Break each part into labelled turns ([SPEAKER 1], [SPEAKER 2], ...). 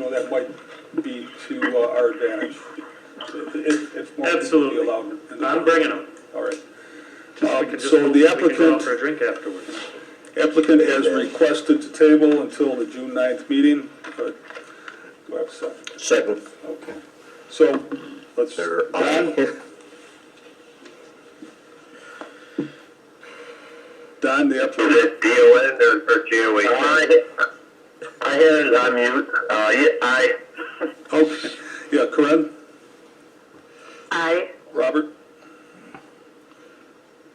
[SPEAKER 1] that might be to uh, our advantage. It- It's more than should be
[SPEAKER 2] Absolutely.
[SPEAKER 1] allowed. in the-
[SPEAKER 2] I'm bringing them.
[SPEAKER 1] All right.
[SPEAKER 2] We could
[SPEAKER 1] Um,
[SPEAKER 2] just-
[SPEAKER 1] So
[SPEAKER 2] we
[SPEAKER 1] the
[SPEAKER 2] could go out
[SPEAKER 1] applicant,
[SPEAKER 2] For a drink afterwards.
[SPEAKER 1] applicant has requested to table until the June 9th meeting. Uh, Do I have a second?
[SPEAKER 3] Second.
[SPEAKER 1] Okay. So, let's,
[SPEAKER 3] They're
[SPEAKER 1] Don, Don, the applicant,
[SPEAKER 4] Is it DON or, or JOH? I, I had it on mute. Uh, yeah, I,
[SPEAKER 1] okay, Oh, yeah, Corinne,
[SPEAKER 5] Aye.
[SPEAKER 1] Robert,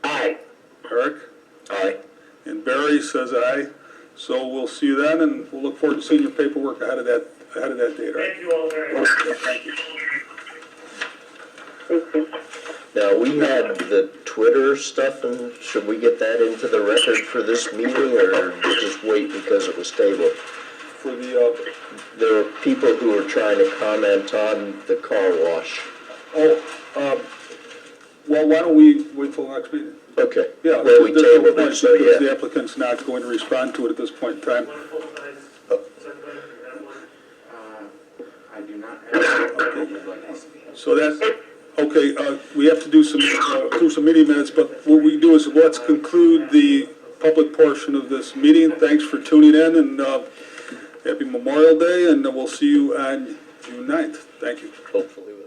[SPEAKER 4] I.
[SPEAKER 1] Eric,
[SPEAKER 3] Aye.
[SPEAKER 1] and Barry says aye. So we'll see you then, and we'll look forward to seeing your paperwork ahead of that, ahead of that date, all right?
[SPEAKER 2] you all very much.
[SPEAKER 1] Thank you.
[SPEAKER 5] Thank you.
[SPEAKER 3] Now, we had the Twitter stuff, and should we get that into the record for this meeting, or just wait because it was tabled?
[SPEAKER 1] For the, uh,
[SPEAKER 3] There were people who were trying to comment on the car wash.
[SPEAKER 1] oh, um, well, why don't we wait till next meeting?
[SPEAKER 3] Okay.
[SPEAKER 1] Yeah.
[SPEAKER 3] Well, we
[SPEAKER 1] there's no
[SPEAKER 3] tabled
[SPEAKER 1] point
[SPEAKER 3] it, so
[SPEAKER 1] because The
[SPEAKER 3] yeah.
[SPEAKER 1] applicant's not going to respond to it at this point in time. Uh,
[SPEAKER 6] I do not have. Okay.
[SPEAKER 1] So that's, okay, uh, we have to do some, uh, do some meeting minutes, but what we do is let's conclude the public portion of this meeting. Thanks for tuning in and, uh, happy Memorial Day and we'll see you on June ninth. Thank you.
[SPEAKER 3] Hopefully with